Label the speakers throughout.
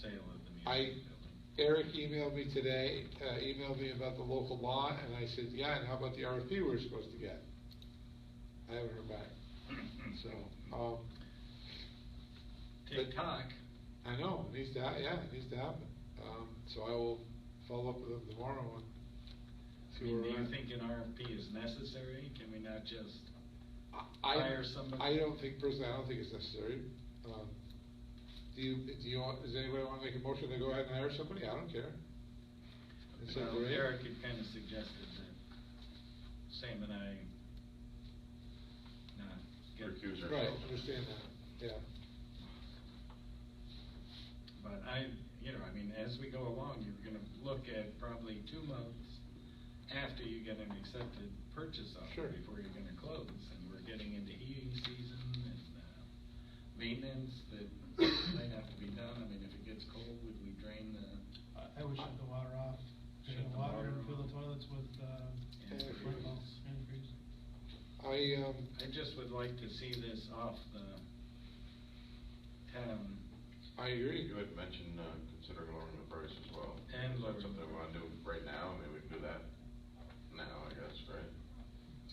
Speaker 1: sale of the
Speaker 2: I,
Speaker 1: municipal building.
Speaker 2: Eric emailed me today, uh, emailed me about the local law, and I said, yeah, and how about the RFP we were supposed to get? I haven't heard back, so, um,
Speaker 1: TikTok,
Speaker 2: I know, it needs to, ha- yeah, it needs to happen, um, so I will follow up with him tomorrow and
Speaker 1: I
Speaker 2: see where
Speaker 1: mean,
Speaker 2: we're
Speaker 1: do you
Speaker 2: at.
Speaker 1: think an RFP is necessary? Can we not just,
Speaker 2: I-
Speaker 1: hire somebody?
Speaker 2: I don't think, personally, I don't think it's necessary, um, do you, do you, want- does anybody wanna make a motion to go ahead and hire somebody? I don't care. It's up to
Speaker 1: Well,
Speaker 2: you.
Speaker 1: Eric had kind of suggested that Sam and I not get.
Speaker 3: Recuse
Speaker 2: Right,
Speaker 3: ourselves.
Speaker 2: understand that, yeah.
Speaker 1: But I, you know, I mean, as we go along, you're gonna look at probably two months after you get an accepted purchase offer
Speaker 2: Sure.
Speaker 1: before you're gonna close, and we're getting into heating season and, uh, maintenance that might have to be done, I mean, if it gets cold, would we drain the?
Speaker 4: I would shut the water off,
Speaker 1: Shut the
Speaker 4: drain the water
Speaker 1: water
Speaker 4: and fill
Speaker 1: off.
Speaker 4: the toilets with, uh,
Speaker 1: And
Speaker 4: hand balls,
Speaker 1: freeze.
Speaker 4: hand freeze.
Speaker 2: I, um,
Speaker 1: I just would like to see this off the town,
Speaker 2: I agree.
Speaker 3: You had mentioned, uh, considering lowering the price as well.
Speaker 1: And
Speaker 3: Is that
Speaker 1: lowering
Speaker 3: Something
Speaker 1: the
Speaker 3: we wanna do right now, I mean, we can do that now, I guess, right?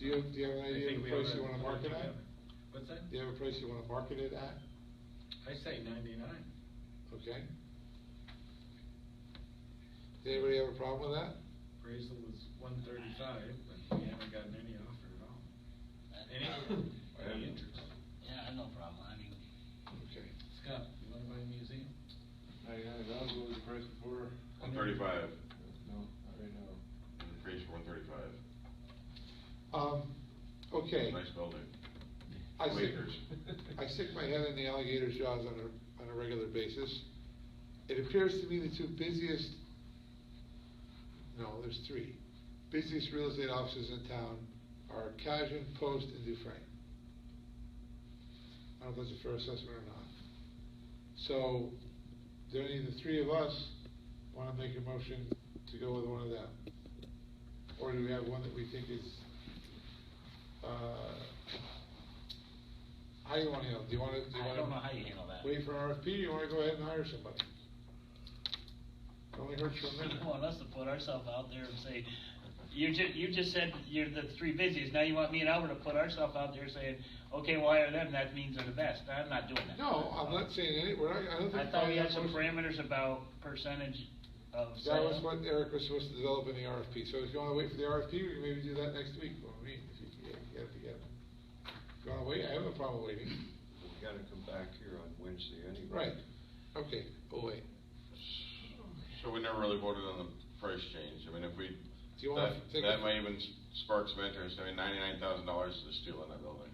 Speaker 2: Do you, do you have an
Speaker 1: I
Speaker 2: idea of
Speaker 1: think
Speaker 2: a
Speaker 1: we have
Speaker 2: price you
Speaker 1: a-
Speaker 2: wanna market at?
Speaker 1: what's that?
Speaker 2: Do you have a price you wanna market it at?
Speaker 1: I say ninety-nine,
Speaker 2: Okay. Does anybody have a problem with that?
Speaker 1: appraisal was one thirty-five, but we haven't gotten any offer at all. Any, any interest?
Speaker 5: Yeah, I have no problem, I mean,
Speaker 2: Okay.
Speaker 1: Scott, you wanna buy a museum?
Speaker 6: I, I, I'll go with the price before.
Speaker 3: One thirty-five,
Speaker 6: No, not right now.
Speaker 3: increase one thirty-five.
Speaker 2: Um, okay.
Speaker 3: Nice building.
Speaker 2: I stick,
Speaker 3: Acres.
Speaker 2: I stick my head in the alligator's jaws on a, on a regular basis. It appears to me the two busiest, no, there's three, busiest real estate offices in town are Cajun, Post, and Dufrain. I don't know if that's a fair assessment or not. So, do any of the three of us wanna make a motion to go with one of them? Or do we have one that we think is, uh, how do you wanna handle, it? do you wanna, do you
Speaker 5: I
Speaker 2: wanna?
Speaker 5: don't know how you handle that.
Speaker 2: Wait for an RFP, or you wanna go ahead and hire somebody? It Only hurts for a minute.
Speaker 5: you want us to put ourselves out there and say, you ju, you just said you're the three busiest, now you want me and Albert to put ourselves out there saying, okay, well, hire them, that means they're the best, I'm not doing that.
Speaker 2: No, I'm not saying any, we're not, I don't think.
Speaker 5: I thought we had some
Speaker 2: motion-
Speaker 5: parameters about percentage of
Speaker 2: That was
Speaker 5: sale.
Speaker 2: what Eric was supposed to develop in the RFP, so if you wanna wait for the RFP, we can maybe do that next week, when we meet, if you can get- get it together. If you wanna wait, I have no problem waiting.
Speaker 7: We gotta come back here on Wednesday anyway.
Speaker 2: Right, okay, we'll wait.
Speaker 3: So we never really voted on the price change, I mean, if we,
Speaker 2: Do you wanna
Speaker 3: that,
Speaker 2: take a-
Speaker 3: that might even s- spark some interest, I mean, ninety-nine thousand dollars is a steal in that building.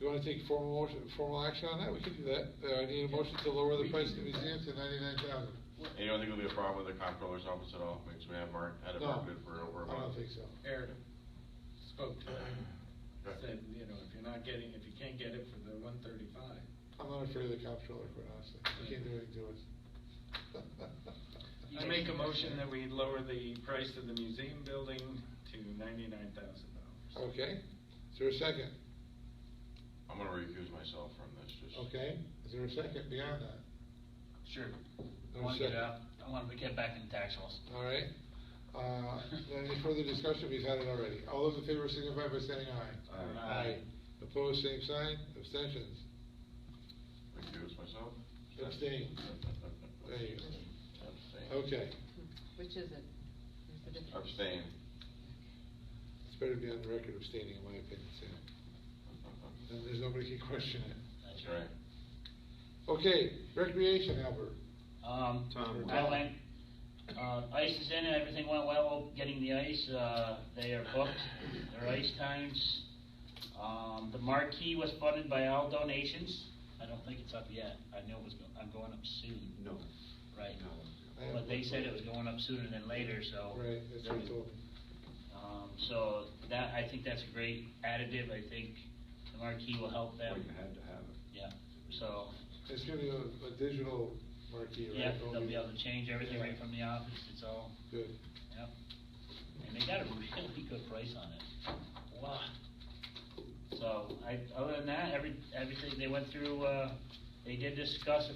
Speaker 2: You wanna take formal motion, formal action on that, we can do that, uh, I need a motion to lower the
Speaker 1: We
Speaker 2: price of
Speaker 1: can
Speaker 2: the
Speaker 1: do that.
Speaker 2: museum to ninety-nine thousand.
Speaker 3: And you don't think it'll be a problem with the comptroller's office at all, because we have mar- had it
Speaker 2: No,
Speaker 3: marketed for over a month?
Speaker 2: I don't think so.
Speaker 1: Eric spoke to him,
Speaker 3: Okay.
Speaker 1: said, you know, if you're not getting, if you can't get it for the one thirty-five.
Speaker 2: I'm not afraid of the comptroller, quite honestly, he can't do anything to us.
Speaker 1: I make a motion that we lower the price of the museum building to ninety-nine thousand dollars.
Speaker 2: Okay, is there a second?
Speaker 3: I'm gonna recuse myself from this, just.
Speaker 2: Okay, is there a second beyond that?
Speaker 5: Sure, I
Speaker 2: No
Speaker 5: wanna get
Speaker 2: second.
Speaker 5: out, I wanna get back in tax laws.
Speaker 2: All right, uh, any further discussion, we've had it already, all those in favor signify by saying aye.
Speaker 7: Aye.
Speaker 1: Aye.
Speaker 2: Opposed, same sign, abstentions,
Speaker 3: Recuse myself?
Speaker 2: abstain, there you
Speaker 3: Abstain.
Speaker 2: go, okay,
Speaker 8: Which is it? There's a difference.
Speaker 3: Abstain.
Speaker 2: it's better to be on the record abstaining, in my opinion, Sam, then there's nobody can question it.
Speaker 3: That's right.
Speaker 2: Okay, recreation, Albert,
Speaker 5: Um,
Speaker 7: Tom,
Speaker 5: I
Speaker 7: what-
Speaker 5: went, uh, ice is in, everything went well, getting the ice, uh, they are booked, their ice times. Um, the marquee was funded by all donations, I don't think it's up yet, I know it was, go- I'm going up soon.
Speaker 7: No.
Speaker 5: Right.
Speaker 2: I have
Speaker 5: But they
Speaker 2: one
Speaker 5: said it
Speaker 2: point.
Speaker 5: was going up sooner than later, so.
Speaker 2: right, that's what I told him.
Speaker 5: Um, so that, I think that's a great additive, I think the marquee will help
Speaker 7: Well,
Speaker 5: them,
Speaker 7: you had to have it.
Speaker 5: yeah, so.
Speaker 2: It's gonna be a, a digital marquee, right?
Speaker 5: Yeah,
Speaker 2: It'll
Speaker 5: they'll be able to change everything
Speaker 2: Yeah.
Speaker 5: right from the office, it's all.
Speaker 2: Good.
Speaker 5: Yep. And they got a really good price on it. Wow. So, I, other than that, every, everything, they went through, uh, they did discuss a